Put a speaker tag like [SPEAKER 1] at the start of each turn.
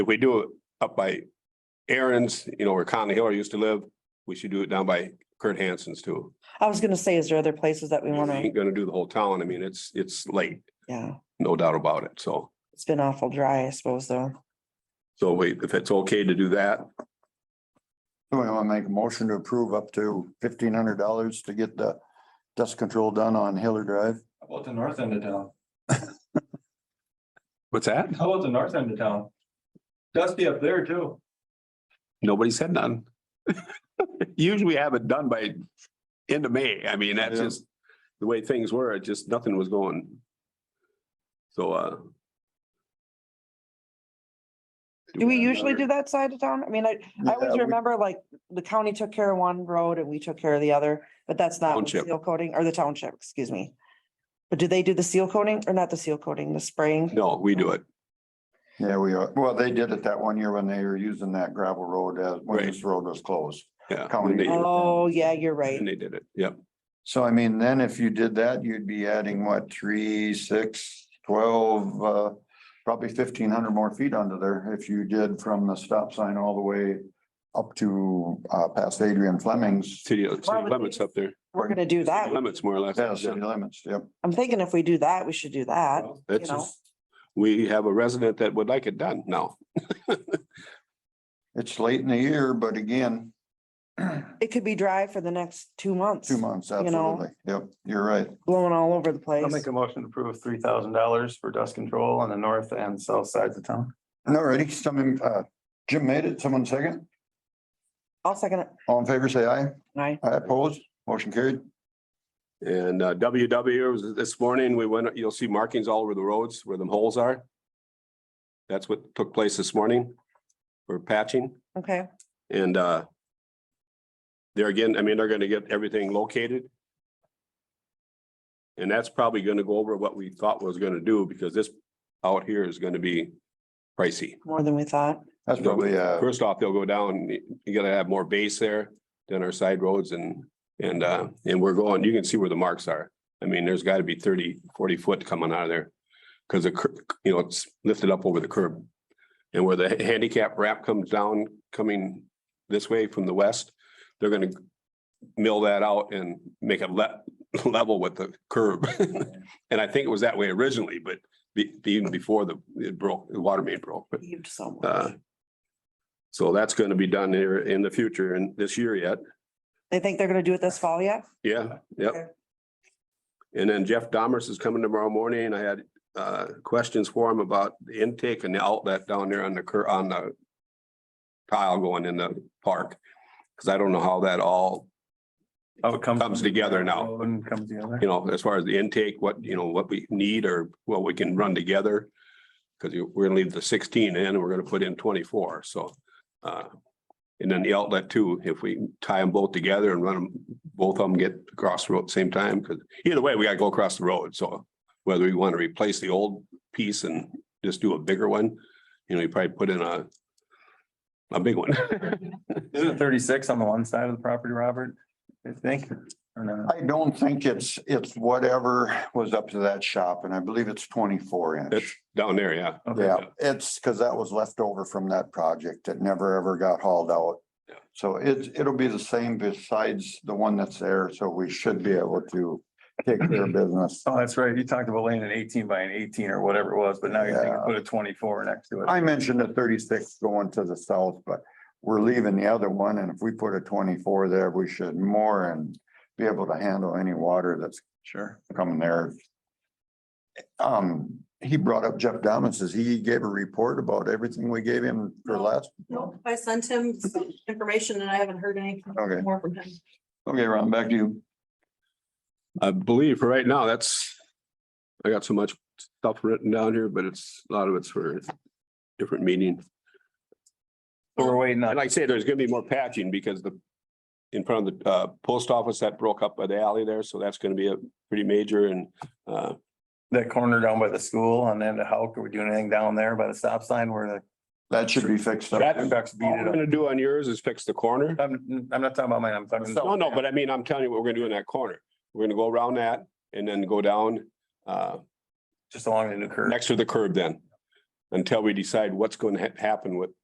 [SPEAKER 1] If we do it up by Aaron's, you know, where Conley Hiller used to live, we should do it down by Kurt Hansen's too.
[SPEAKER 2] I was gonna say, is there other places that we
[SPEAKER 1] We
[SPEAKER 2] wanna,
[SPEAKER 1] Ain't gonna do the whole town. I mean, it's, it's late,
[SPEAKER 2] yeah,
[SPEAKER 1] no doubt about it. So,
[SPEAKER 2] it's been awful dry, I suppose, though.
[SPEAKER 1] so wait, if it's okay to do that,
[SPEAKER 3] Do we want to make a motion to approve up to fifteen hundred dollars to get the dust control done on Hiller Drive?
[SPEAKER 4] How about the north end of town?
[SPEAKER 1] what's that?
[SPEAKER 4] How about the north end of town? Dusty up there too.
[SPEAKER 1] Nobody said none. Usually we have it done by end of May. I mean, that's
[SPEAKER 3] Yeah.
[SPEAKER 1] just the way things were. It just, nothing was going. So, uh.
[SPEAKER 2] Do we
[SPEAKER 1] have
[SPEAKER 2] usually
[SPEAKER 1] another-
[SPEAKER 2] do that side of town? I mean, I, I
[SPEAKER 3] Yeah,
[SPEAKER 2] always
[SPEAKER 3] we-
[SPEAKER 2] remember like the county took care of one road and we took care of the other, but that's not with
[SPEAKER 1] Township.
[SPEAKER 2] seal coating or the township, excuse me. But do they do the seal coating or not the seal coating, the spraying?
[SPEAKER 1] No, we do it.
[SPEAKER 3] Yeah, we are. Well, they did it that one year when they were using that gravel road, uh, when this road was closed.
[SPEAKER 1] Yeah.
[SPEAKER 3] County.
[SPEAKER 1] and they-
[SPEAKER 2] Oh, yeah, you're right.
[SPEAKER 1] And they did it. Yep.
[SPEAKER 3] So I mean, then if you did that, you'd be adding what, three, six, twelve, uh, probably fifteen hundred more feet under there if you did from the stop sign all the way up to, uh, past Adrian Fleming's.
[SPEAKER 1] City city
[SPEAKER 2] Well, but
[SPEAKER 1] limits up there,
[SPEAKER 2] We're gonna do that.
[SPEAKER 1] limits more or less.
[SPEAKER 3] Yeah, city limits, yep.
[SPEAKER 2] I'm thinking if we do that, we should do that.
[SPEAKER 1] That's
[SPEAKER 2] you know.
[SPEAKER 1] just, we have a resident that would like it done now.
[SPEAKER 3] It's late in the year, but again,
[SPEAKER 2] It could be dry for the next two months,
[SPEAKER 3] two months,
[SPEAKER 2] You know.
[SPEAKER 3] absolutely. Yep, you're right.
[SPEAKER 2] blowing all over the place.
[SPEAKER 5] I'll make a motion to approve three thousand dollars for dust control on the north and south sides of town.
[SPEAKER 3] Alrighty, someone, uh, Jim made it, someone second,
[SPEAKER 2] I'll second it.
[SPEAKER 3] all in favor, say aye,
[SPEAKER 2] Aye.
[SPEAKER 3] aye opposed, motion carried.
[SPEAKER 1] And uh, WW was this morning, we went, you'll see markings all over the roads where the holes are. That's what took place this morning for patching
[SPEAKER 2] Okay,
[SPEAKER 1] and uh. There again, I mean, they're gonna get everything located. And that's probably gonna go over what we thought was gonna do because this out here is gonna be pricey.
[SPEAKER 2] more than we thought.
[SPEAKER 3] That's probably, uh,
[SPEAKER 1] First off, they'll go down, you- you gotta have more base there than our side roads and, and, uh, and we're going, you can see where the marks are. I mean, there's gotta be 30, 40 foot coming out of there. Cause the, cur- you know, it's lifted up over the curb. And where the handicap ramp comes down, coming this way from the west, they're gonna mill that out and make it le- level with the curb. And I think it was that way originally, but be, even before the, it broke, the water main broke, but
[SPEAKER 2] Heaved so
[SPEAKER 1] uh,
[SPEAKER 2] much.
[SPEAKER 1] So that's gonna be done here in the future and this year yet.
[SPEAKER 2] They think they're gonna do it this fall yet?
[SPEAKER 1] Yeah, yep. And then Jeff Dahmers is coming tomorrow morning and I had uh questions for him about the intake and the outlet down there on the cur, on the tile going in the park, cause I don't know how that all,
[SPEAKER 5] How Oh, it comes.
[SPEAKER 1] Comes together now.
[SPEAKER 5] And comes together.
[SPEAKER 1] you know, as far as the intake, what, you know, what we need or what we can run together. Cause you, we're gonna leave the sixteen in and we're gonna put in twenty-four, so. uh And then the outlet too, if we tie them both together and run them, both of them get across the road at the same time, cause either way, we gotta go across the road, so. Whether we wanna replace the old piece and just do a bigger one, you know, you probably put in a. A big one.
[SPEAKER 5] Isn't it thirty-six on the one side of the property, Robert? I think, or not?
[SPEAKER 3] I don't think it's, it's whatever was up to that shop, and I believe it's twenty-four
[SPEAKER 1] That's
[SPEAKER 3] inch.
[SPEAKER 1] down there, yeah.
[SPEAKER 5] Okay.
[SPEAKER 3] Yeah, it's because that was left over from that project that never ever got hauled out.
[SPEAKER 1] Yeah.
[SPEAKER 3] So it's, it'll be the same besides the one that's there, so we should be able to take care of business.
[SPEAKER 5] Oh, that's right. You talked about laying an eighteen by an eighteen or whatever it was, but now you're thinking
[SPEAKER 3] Yeah.
[SPEAKER 5] put a twenty-four next to it.
[SPEAKER 3] I mentioned the thirty-six going to the south, but we're leaving the other one, and if we put a twenty-four there, we should more and be able to handle any water that's
[SPEAKER 5] Sure.
[SPEAKER 3] coming there. Um, he brought up Jeff Dahman, says he gave a report about everything we gave him for last.
[SPEAKER 6] Nope, I sent him some information and I haven't heard anything
[SPEAKER 3] Okay,
[SPEAKER 6] more from him.
[SPEAKER 3] okay, Ron, back to you.
[SPEAKER 1] I believe for right now, that's, I got so much stuff written down here, but it's, a lot of it's for different meeting.
[SPEAKER 5] So We're waiting
[SPEAKER 1] And
[SPEAKER 5] on.
[SPEAKER 1] like I say, there's gonna be more patching because the, in front of the, uh, post office that broke up by the alley there, so that's gonna be a pretty major and, uh,
[SPEAKER 5] That corner down by the school on the end of Hulk, are we doing anything down there by the stop sign where
[SPEAKER 3] That should be fixed up.
[SPEAKER 1] That-
[SPEAKER 5] the ducks beat
[SPEAKER 1] all we're
[SPEAKER 5] it up?
[SPEAKER 1] gonna do on yours is fix the corner.
[SPEAKER 5] I'm, I'm not talking about mine, I'm talking.
[SPEAKER 1] No, no, but I mean, I'm telling you what we're gonna do in that corner. We're gonna go around that and then go down, uh,
[SPEAKER 5] Just along the new curve.
[SPEAKER 1] next to the curb then. until we decide what's going to happen with